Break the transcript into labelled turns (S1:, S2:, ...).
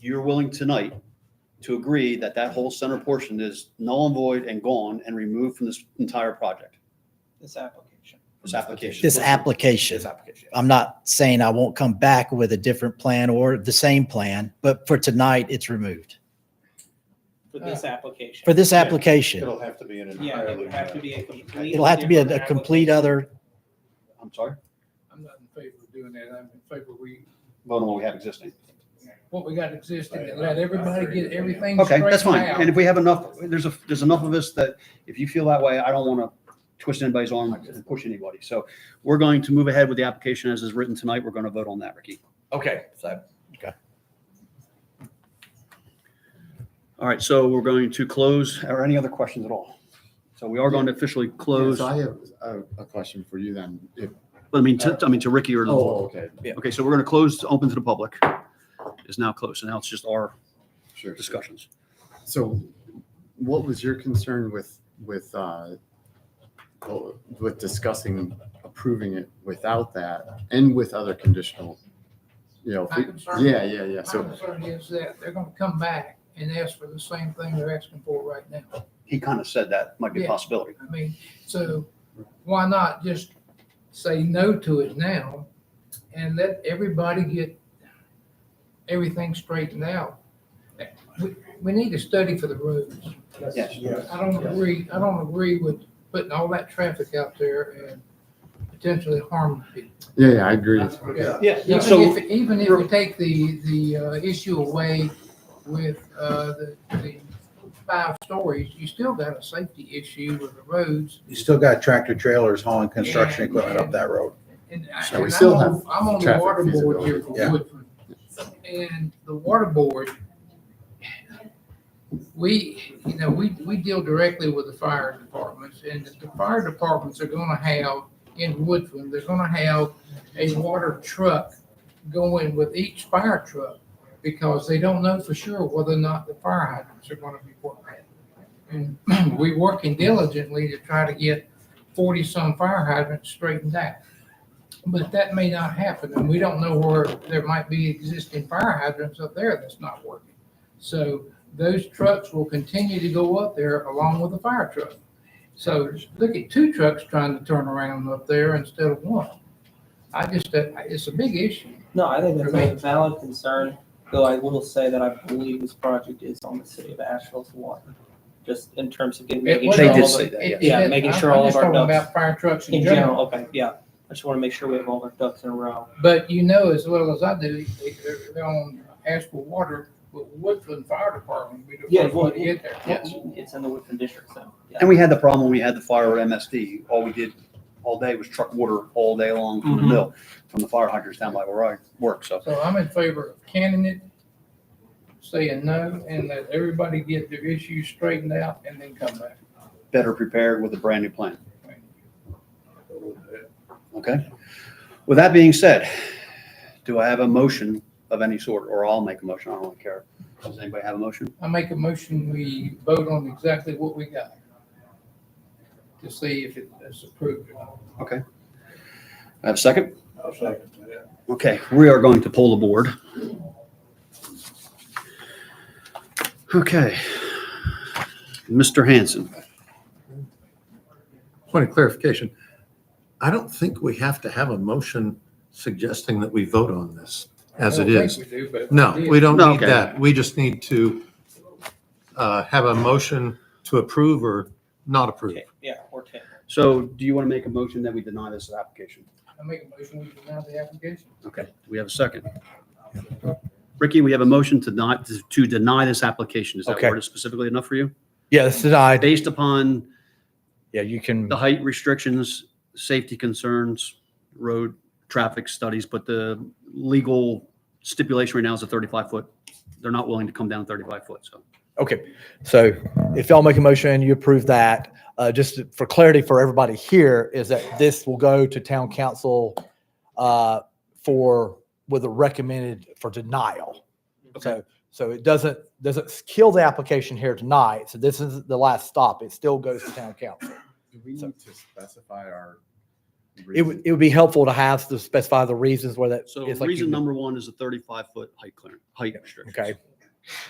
S1: you're willing tonight to agree that that whole center portion is null and void and gone and removed from this entire project,
S2: This application.
S1: this application.
S3: This application.
S2: This application.
S3: I'm not saying I won't come back with a different plan or the same plan, but for tonight, it's removed.
S2: For this application.
S3: For this application,
S4: It'll have to be an
S2: Yeah, it
S4: entirely.
S2: would have to be a complete.
S3: it'll have to be a a
S2: different
S3: complete other,
S1: I'm sorry,
S5: I'm not in favor of doing that. I'm in favor we,
S1: vote on what we have existing.
S5: what we got existing and let everybody get everything
S1: Okay, that's
S5: straightened
S1: fine. And if
S5: out.
S1: we have enough, there's a, there's enough of us that if you feel that way, I don't want to twist anybody's arm and push anybody. So we're going to move ahead with the application as is written tonight. We're going to vote on that, Ricky.
S6: Okay, so
S1: All right, so we're going to close, or any other questions at all? So we are going to officially close,
S4: So
S1: but
S4: I have a, a question for you then. If-
S1: I mean, to, I mean, to Ricky or to the board.
S4: Oh, okay,
S1: Okay, so we're going to close, open to the public is now closed. And now it's just our
S4: sure.
S1: discussions.
S4: So what was your concern with, with, uh, well, with discussing approving it without that and with other conditional? You know, if
S5: My
S4: we-
S5: concern-
S4: yeah, yeah, yeah.
S5: My
S4: So,
S5: concern is that they're gonna come back and ask for the same thing they're asking for right now.
S1: He kind of said that might be a
S5: Yeah.
S1: possibility.
S5: I mean, so why not just say no to it now and let everybody get everything straightened out? We, we need a study for the roads.
S1: Yes.
S5: I don't agree, I don't agree with putting all that traffic out there and potentially harming people.
S4: yeah, yeah, I agree.
S5: Yeah.
S1: Yeah,
S5: Even
S1: so,
S5: if, even if we take the, the uh, issue away with uh, the, the five stories, you still got a safety issue with the roads.
S7: You still got tractor trailers hauling construction
S5: And-
S7: equipment up that road.
S5: And I-
S4: So we
S5: and I'm
S4: still
S5: on-
S4: have
S5: I'm on the
S4: traffic
S5: water board here
S4: feasibility.
S5: for
S7: Yeah.
S5: Woodford. And the water board, we, you know, we, we deal directly with the fire departments and the fire departments are gonna have in Woodford, they're gonna have a water truck going with each fire truck because they don't know for sure whether or not the fire hydrants are gonna be working. And we are working diligently to try to get forty-some fire hydrants straightened out. But that may not happen, and we don't know where there might be existing fire hydrants up there that's not working. So those trucks will continue to go up there along with the fire truck. So look at two trucks trying to turn around up there instead of one. I just, uh, it's a big issue.
S2: No, I think that's a valid concern, though I will say that I believe this project is on the city of Asheville's water, just in terms of getting. making
S1: They
S2: sure
S1: did
S2: all the-
S1: say that,
S5: It-
S2: yeah.
S5: it-
S2: Yeah, making
S5: I'm-
S2: sure
S5: I'm
S2: all of
S5: just
S2: our
S5: talking
S2: ducks-
S5: About fire trucks
S2: In general, okay, yeah. I just want to make sure we have all our ducks in a row.
S5: But you know as well as I do, they- they're, they're on Asheville Water, but Woodland Fire Department, we
S2: Yeah,
S5: don't want to
S2: Wood-
S5: get there. Yes.
S2: It's in the Woodford district, so. yeah.
S1: and we had the problem when we had the fire at MSD. All we did all day was truck water all day long from the
S2: Mhm.
S1: mill, from the fire hydrants down by where I work. So
S5: So I'm in favor of canning it, saying no, and let everybody get their issues straightened out and then come back.
S1: better prepared with a brand new plan. Okay. With that being said, do I have a motion of any sort, or I'll make a motion? I don't really care. Does anybody have a motion?
S5: I make a motion, we vote on exactly what we got to see if it is approved or not.
S1: I have a second?
S7: I'll second that.
S1: Okay, we are going to pull the board. Okay. Mr. Hanson,
S8: Point of clarification, I don't think we have to have a motion suggesting that we vote on this as
S5: I
S8: it
S5: don't think
S8: is.
S5: we do, but if
S8: No,
S5: did,
S8: we don't
S1: No,
S8: need
S1: okay.
S8: that. We just need to uh, have a motion to approve or not approve.
S2: Okay, Yeah, or ten.
S1: so do you want to make a motion that we deny this application?
S5: I make a motion, we deny the application.
S1: Okay, do we have a second? Ricky, we have a motion to not, to deny this application. Is that
S6: Okay.
S1: word specifically enough for you?
S6: yeah, this is I.
S1: Based upon
S6: Yeah, you can.
S1: the height restrictions, safety concerns, road traffic studies, but the legal stipulation right now is a 35 foot. They're not willing to come down 35 foot, so.
S6: Okay, so if y'all make a motion and you approve that, uh, just for clarity for everybody here, is that this will go to town council uh, for, with a recommended for denial. So, so it doesn't, doesn't kill the application here tonight. So this is the last stop. It still goes to town council.
S4: Do we
S6: need
S4: to specify our?
S6: It would, it would be helpful to have to specify the reasons where that.
S1: So
S6: it's like you-
S1: reason number one is a 35 foot height clearance, height restriction.
S6: Okay,